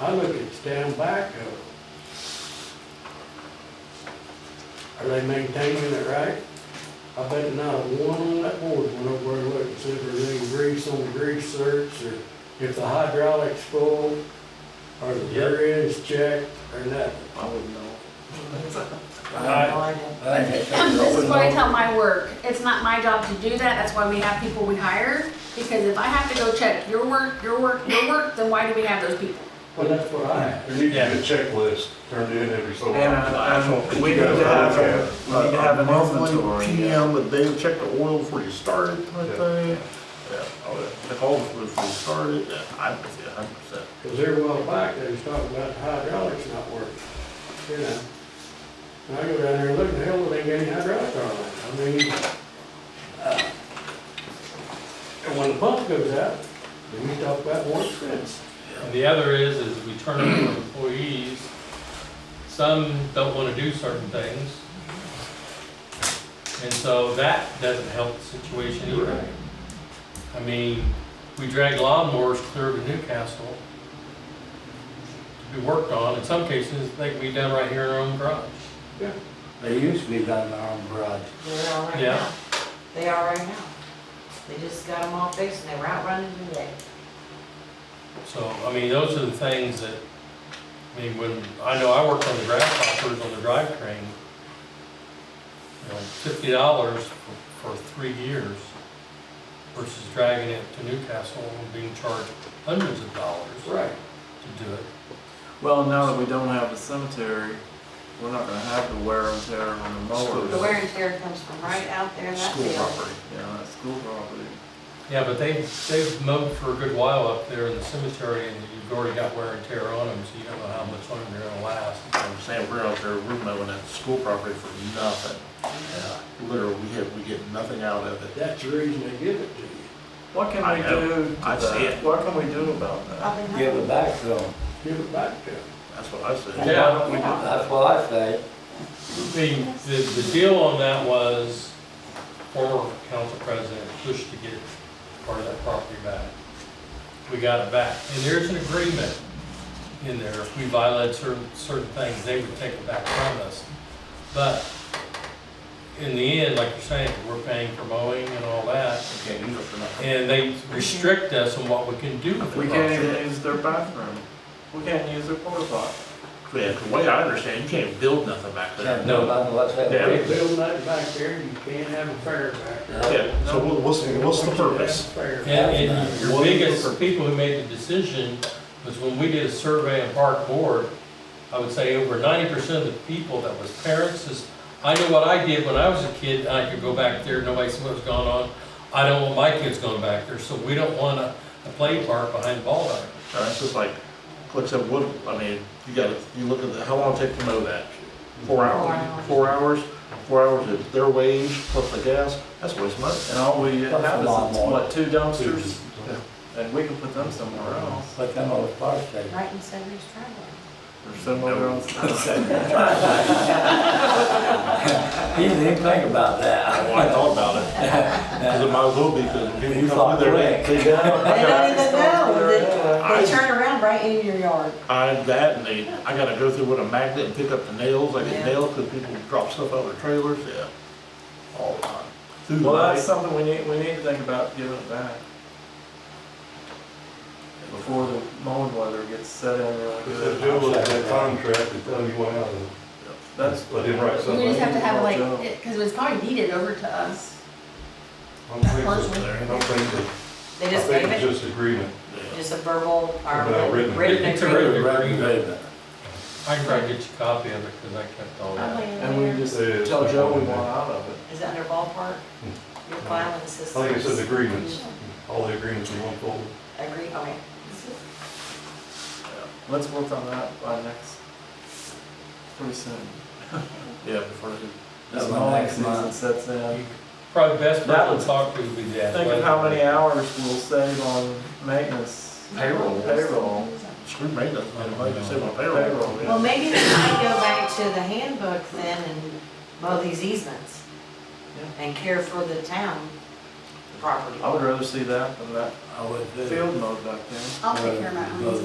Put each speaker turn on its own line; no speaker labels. I look at stand back of. Are they maintaining it right? I bet not one on that board went over and looked and see if there's any grease on the grease certs or if the hydraulics full or the
Yep.
rear end's checked or nothing.
I wouldn't know.
I have no idea.
I think that's- I
This is
wouldn't
what I
know.
tell my work. It's not my job to do that. That's why we have people we hire. Because if I have to go check your work, your work, your work, then why do we have those people?
Well, that's what I have.
There needs to be a checklist turned in every so
And,
often.
uh, um, we need
You guys
to have,
are
a-
okay.
we need to have an
Monthly
inventory. yeah.
PM, the day you check the oil before you start it, type
Yeah.
thing. Yeah, all that. The hole before you start it, yeah, I would say a hundred percent.
Cause they're well back, they was talking about the hydraulics not working, you know? And I go down there and look, the hell, they ain't got any hydraulic on it, I mean, uh, and when the pump goes out, then you talk about more expense.
And the other is, is we turn over employees. Some don't want to do certain things. And so that doesn't help the situation either. I mean, we drag lawnmowers clear to Newcastle to be worked on. In some cases, they can be done right here in our own garage.
They used to be down in our own garage.
They're all right
Yeah.
now. They are right now. They just got them all fixed and they were out running today.
So, I mean, those are the things that, I mean, when, I know I worked on the grasshoppers on the drivetrain. You know, fifty dollars for three years versus dragging it to Newcastle and being charged hundreds of dollars
Right.
to do it.
Well, now that we don't have the cemetery, we're not gonna have the wear and tear on the mowers.
The wear and tear comes from right out there in that
School
field.
property.
Yeah, that's school property.
Yeah, but they, they've mowed for a good while up there in the cemetery and you've already got wear and tear on them, so you don't know how much longer they're gonna last.
I'm saying, we're out there, we're mowing that school property for nothing. Literally, we get, we get nothing out of it.
That's the reason they give it to you,
What can
I
we
know.
do? to
I see
that?
it.
What can we do about
Uh,
that?
Up in
Give it back to them.
give it back to them.
That's what I said.
Yeah.
Why don't we do that?
That's what I say.
The, the, the deal on that was former council president pushed to get part of that property back. We got it back, and there's an agreement in there, if we violated certain, certain things, they would take it back from us. But in the end, like you're saying, we're paying for mowing and all that,
Can't use it for nothing.
and they restrict us on what we can do with
We
it.
can't even use their bathroom. We can't use their porta potty.
Yeah, the way I understand, you can't build nothing back there.
Can't do nothing unless they
Yeah.
fix it.
Build that back there, you can't have a fair back there.
Yeah, so what- what's, what's the purpose?
Fair.
And, and your biggest people who made the decision was when we did a survey of park board, I would say over ninety percent of the people that was parents is, I know what I did when I was a kid, and I could go back there, nobody saw what was going on. I don't want my kids going back there, so we don't want a, a play park behind the ball diamond.
Uh, It's just like, like I said, what, I mean, you gotta, you look at the, how long it take to mow that? Four hours, four hours, four hours is their wage plus the gas, that's waste money.
And all we
That's
have
a
is,
lot more.
what, two dumpsters?
Yeah.
And we can put them somewhere else.
Put them on the fire station.
Right in Sunday's driveway.
Or somewhere else.
He didn't even think about that.
Well, I thought about it, because it might as well be, because when
You
people come
thought
through there,
quick.
they, they down. I
They
got-
don't even know.
I-
They- They turn around right in your yard.
I, that, and they, I gotta go through with a magnet and pick up the nails, I
Yeah.
get nails, because people drop stuff out of their trailers, yeah. All the time. Through the
Well, that's
night,
something we need, we need to think about giving it back. Before the mowing weather gets set in really
Because the
good.
deal with that contract, they tell you what happened.
That's,
Let him write
We
something.
just have to have like,
uh,
Well, Joe.
because it was probably deeded over to us.
I don't think that- I don't think that,
They
I
just
think
gave
it's
it,
just agreement.
yeah.
just a verbal, or
About written.
written
It's a
agreement.
written
Right,
agreement.
right.
I can probably get you a copy of it, because I kept all that.
and we just
Yeah.
tell Joe we want out of it.
Is it under ballpark? Your filing
Hmm. I
system?
think it's an agreements, all the agreements in one folder.
Agree, okay.
Let's work on that by next, pretty soon.
Yeah, before they.
That's
This
my
mowing
next
season
month.
sets in.
Probably best
That
person
was-
to talk to would be the
Think of how many hours we'll save on maintenance.
Payroll.
Payroll.
Screw maintenance, man, like you said, my
Payroll,
payroll.
yeah.
Well, maybe we might go back to the handbook then and mow these easements and care for the town property.
I would rather see that than that
I would do.
field mowed back there.
I'll take care of my own.